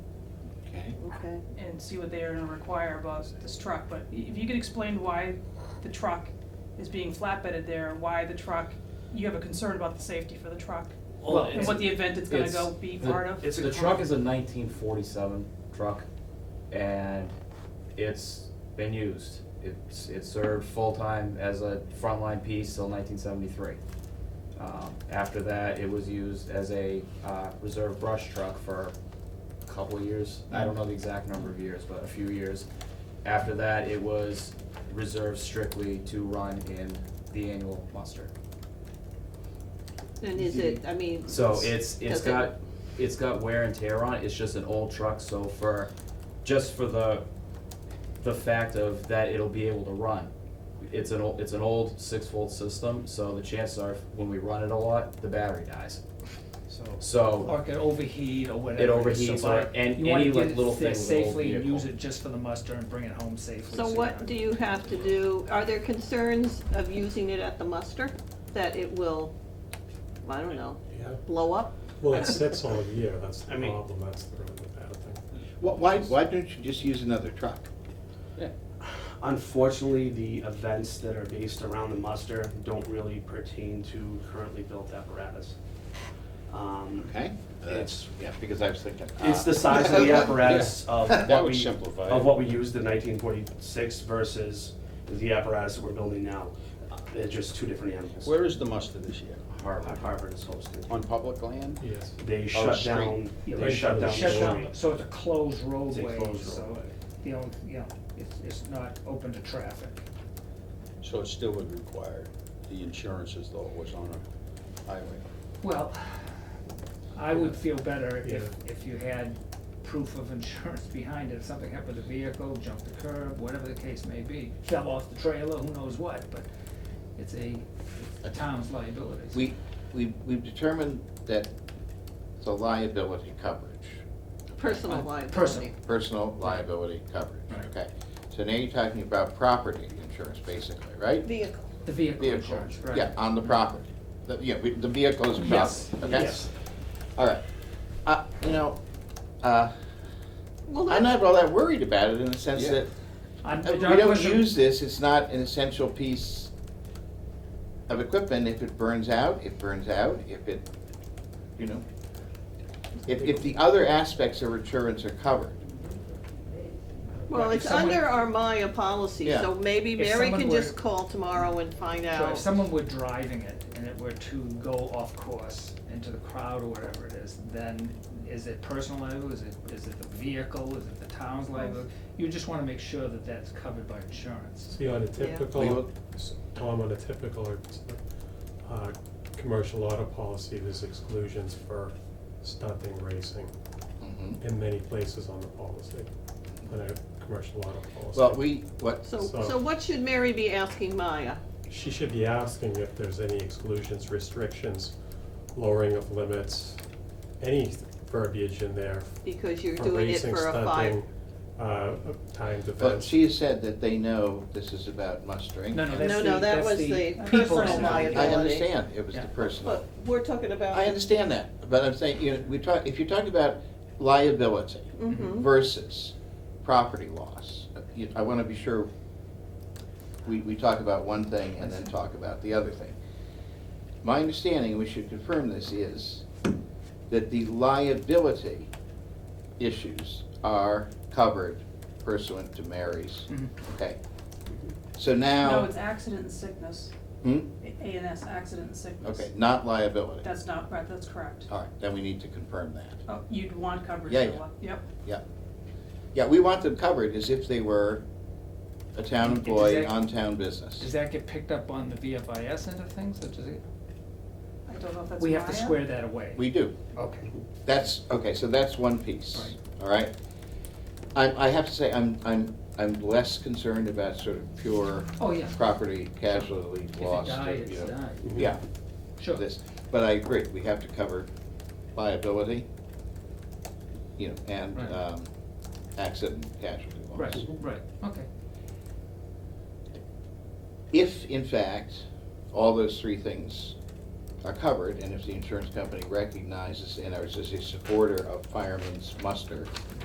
Okay. and see what they are gonna require about this truck, but i- if you could explain why the truck is being flatbedded there, why the truck, you have a concern about the safety for the truck, Well, and what the event it's gonna it's- go be the- part of? It's, the truck is a nineteen forty-seven truck, and it's been used. It's, it served full-time as a frontline piece till nineteen seventy-three. Um, after that, it was used as a, uh, reserve brush truck for a couple of years. I don't know the exact number of years, but a few years. After that, it was reserved strictly to run in the annual muster. And is it, I mean. So it's, it's does it- got, it's got wear and tear on it, it's just an old truck, so for, just for the, the fact of that it'll be able to run. It's an old, it's an old six volt system, so the chances are, when we run it a lot, the battery dies. So, So, or it could overheat or whatever. it overheats, so, or, like, and you wanna any get like it little there thing with an old Safely and use vehicle. it just for the muster and bring it home safely. So you're what not- do you have to do, are there concerns of using it at the muster, that it will, I don't know, Yeah, blow up? well, it sits all year, that's I the mean- problem, that's the really bad thing. Wh- Why, why don't you just use another truck? Unfortunately, the events that are based around the muster don't really pertain to currently built apparatus. Um, Okay? Uh, That's, yeah, because I was thinking. It's ah. the size of the apparatus of That what would we, simplify of it. what we used in nineteen forty-six versus the apparatus that we're building now. Uh, They're just two different animals. Where is the muster this year? Harvard, Harvard is hosting. On public land? Yes. They Oh, shut street. down, Yeah, they shut down the Shut down, street. so it's a closed It's a roadway, closed so, roadway. you know, you know, it's, it's not open to traffic. So it still would require the insurances though it was on a highway. Well, I would feel better if, Yeah. if you had proof of insurance behind it, if something happened to the vehicle, jumped the curb, whatever the case may be, fell off the trailer, who knows what, but it's a, a town's liability. We, we, we've determined that it's a liability coverage. Personal Uh, liability? personal. personal liability coverage, Right. okay? So now you're talking about property insurance, basically, right? Vehicle. The vehicle Vehicle, insurance, right? yeah, on the property. The, yeah, we- the vehicle is Yes, property, okay? yes. All right. Uh, you know, uh, Well, I'm that's, not all that worried about it in the sense Yeah. that I'm- uh, we I don't wasn't- use this, it's not an essential piece of equipment. If it burns out, it burns out. If it, you know, if, if the other aspects of insurance are covered, well, Right, if it's someone- under our Maya policy, Yeah. so maybe If Mary someone can were- just call tomorrow and find So if out. someone were driving it and it were to go off course into the crowd or whatever it is, then is it personal liability, is it, is it the vehicle, is it the town's liability? You just wanna make sure that that's covered by insurance. See, on a We typical, look- Tom, on a typical, uh, commercial auto policy, there's exclusions for stunting racing Mm-hmm. Mhm. in many places on the policy, on a commercial auto policy. Well, we, what, So, so- so what should Mary be asking Maya? She should be asking if there's any exclusions, restrictions, lowering of limits, any verbiage in there Because you're for doing it racing, for a five. stunting, uh, timed But events. she has said that they know this is about mustering. No, no, that's No, the, no, that that's was the the people's. personal liability. I liability. understand, it was the Yeah. personal. But we're talking about. I understand that, but I'm saying, you know, we talk, if you're talking about liability Mhm. versus property loss, uh, you- I wanna be sure we, we talk about one thing and then talk about the other thing. My understanding, we should confirm this, is that the liability issues are covered pursuant to Mary's, Mhm. okay? So No, now, it's accident and sickness, hmm? A and S, accident and sickness. Okay, not liability. That's not, right, that's correct. All right, then we need to confirm that. Oh, you'd want coverage Yeah, for yeah. what, yep, Yeah, we want them covered as if they were a town employee Exactly. on town Does business. that get picked up on the VFIS end of things, or does it? I don't know if that's We have to Maya. square that away. We do. Okay. That's, okay, so that's one piece, all right? I, I have to say, I'm, I'm, I'm less concerned about sort of pure Oh, yeah. property casualty If it loss. to, died, you it's know, died. Yeah, Sure. this, but I agree, we have to cover liability, you know, and, Right. um, accident casualty loss. Right, right, okay. If, in fact, all those three things are covered, and if the insurance company recognizes and is a supporter of fireman's muster,